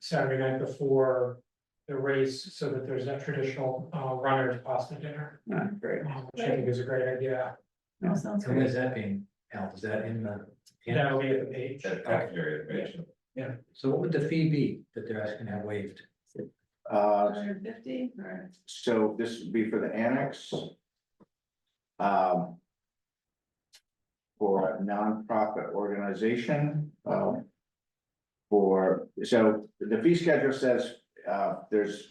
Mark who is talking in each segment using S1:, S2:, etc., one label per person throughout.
S1: Saturday night before the race, so that there's that traditional uh runners pasta dinner.
S2: Uh, great.
S1: um, Which I think is a great idea,
S2: Yeah.
S3: That sounds
S4: Where
S3: good.
S4: is that being held? Is that in the?
S1: that will be at the page,
S5: That cafeteria information.
S4: Yeah, so what would the fee be that they're asking to have waived?
S2: Uh,
S3: Hundred fifty, or
S2: so this would be for the annex. Um. For a nonprofit organization, um. For, so the fee schedule says, uh, there's.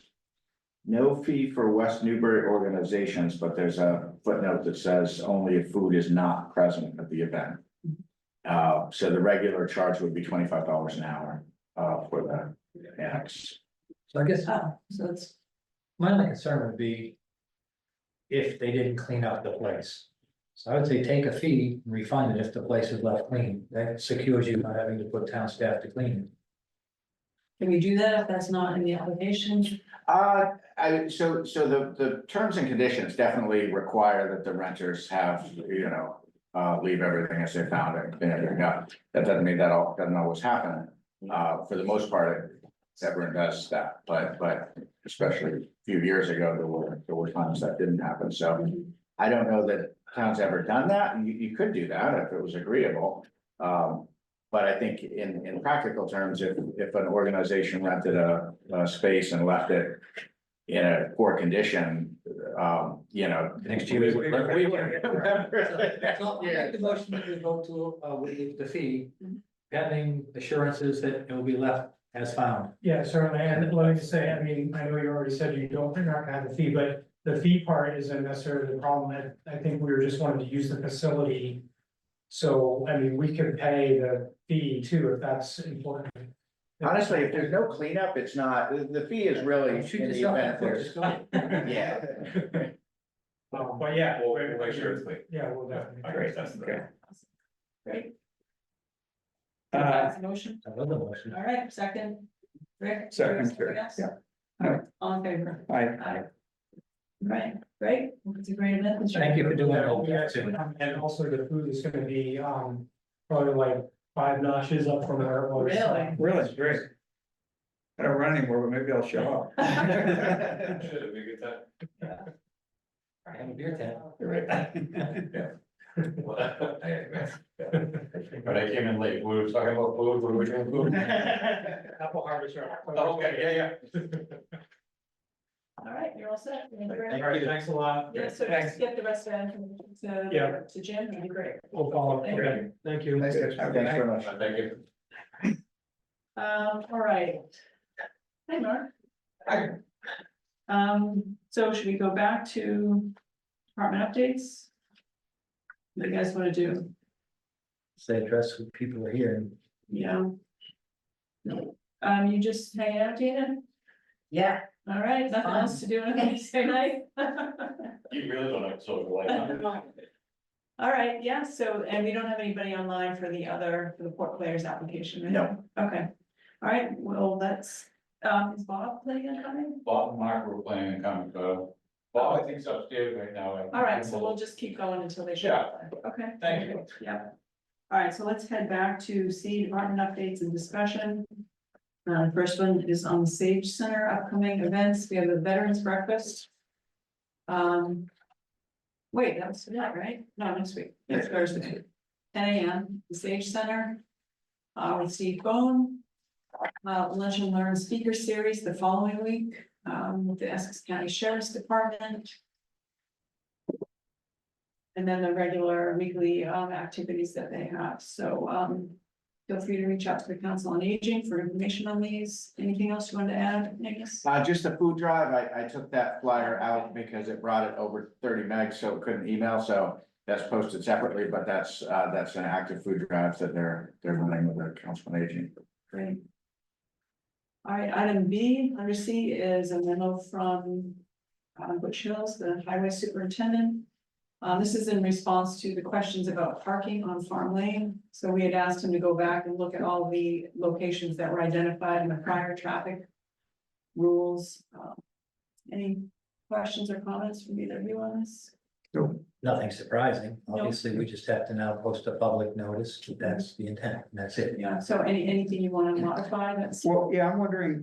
S2: No fee for West Newbury organizations, but there's a footnote that says only if food is not present at the event. Uh, so the regular charge would be twenty-five dollars an hour, uh, for the annex.
S4: So I guess
S3: oh, so it's,
S4: my only concern would be. If they didn't clean up the place. So I would say take a fee, and refund it if the place is left clean. That secures you not having to put town staff to clean.
S3: can we do that if that's not in the application?
S2: Uh, I, so, so the, the terms and conditions definitely require that the renters have, you know, uh, leave everything as they found it, clean everything up. That doesn't mean that all, doesn't always happen. Uh, for the most part, everyone does that, but, but especially a few years ago, there were, there were times that didn't happen, so. I don't know that town's ever done that, and you, you could do that if it was agreeable. Um, but I think in, in practical terms, if, if an organization rented a, a space and left it in a poor condition, um, you know.
S4: Next
S2: we
S4: year.
S2: would- we would-
S4: So I make the motion that we vote to uh waive the fee
S3: Mm-hmm.
S4: pending assurances that it will be left as found.
S1: yeah, certainly, and let me just say, I mean, I know you already said you don't, you're not gonna have a fee, but. The fee part isn't necessarily the problem, I I think we were just wanting to use the facility. So, I mean, we could pay the fee too, if that's important.
S2: Honestly, if there's no cleanup, it's not, the, the fee is really
S4: Shoot
S2: in the
S4: yourself in
S2: event
S4: the foot,
S2: there's,
S4: just go.
S2: yeah.
S1: Um, but yeah.
S5: We'll, we'll make sure it's clean.
S1: Yeah, we'll definitely.
S5: I guess that's the.
S3: Great.
S2: Uh,
S3: That's a Motion,
S4: Another motion.
S3: all right, second. Rick?
S2: Second, sure,
S3: Yes?
S2: yeah.
S3: All right, all in favor? Aye. Right, great, Well, it's a great event. this year.
S4: Thank you for doing
S1: Yeah, we
S4: that.
S1: actually- And also the food is gonna be, um, probably like five notches up from where it was.
S3: Really?
S6: Really, great. I don't run anymore, but maybe I'll show up.
S5: Should it be a good time?
S4: I have a beer tent.
S5: Well, anyway, yeah. But I came in late, we were talking about food, we were doing food.
S1: Apple harvest. right?
S5: Oh, Okay, yeah, yeah.
S3: All right, you're all set. Thank you very
S1: All
S3: much.
S1: right, thanks a lot.
S3: Yeah, so just get the rest of that information
S1: Yeah.
S3: to, to Jim, that'd be great.
S1: We'll follow up.
S3: Thank
S1: Okay, Thank you.
S6: Nice
S2: Thanks very much.
S5: Uh, Thank you.
S3: Um, all right. Hi, Mark.
S5: Hi.
S3: Um, so should we go back to department updates? What do you guys wanna do?
S4: Say address who people are here and
S3: Yeah. Um, you just hanging out, Dana?
S7: Yeah,
S3: All right, nothing
S7: Fun.
S3: else to do on Wednesday night?
S5: You really don't have social life. huh?
S3: All right, yeah, so, and we don't have anybody online for the other, for the port players application, right?
S2: No.
S3: Okay, all right, well, that's, um, is Bob playing and coming?
S5: Bob and Mark were playing a comic book. Bob, I think's upstairs right now. I-
S3: All right, so we'll just keep going until they show up, then. okay?
S5: Thank you.
S3: Yeah. All right, so let's head back to C department updates and discussion. Uh, first one is on the Sage Center upcoming events. We have a Veterans Breakfast. Um. Wait, that was tonight, right? No, next week, next Thursday, ten AM, the Sage Center. Uh, with Steve Bone. Uh, Lunch and Learn Speaker Series the following week, um, with the Essex County Sheriff's Department. And then the regular weekly um activities that they have, so um. Feel free to reach out to the Council on Aging for information on these. Anything else you wanted to add, Nicholas?
S2: Uh, just the food drive, I, I took that flyer out because it brought it over thirty megs, so it couldn't email, so that's posted separately, but that's, uh, that's an active food drive that they're, they're running with the council on aging.
S3: Great. All right, item B, under C is a memo from um Butch Hills, the highway superintendent. Uh, this is in response to the questions about parking on Farm Lane. So we had asked him to go back and look at all the locations that were identified in the prior traffic rules. Um, Any questions or comments from either of you on this?
S4: nothing surprising. Obviously, we just have to now post a public notice. That's the intent. and That's it.
S3: Yeah, so any, anything you want to modify that's?
S6: Well, yeah, I'm wondering,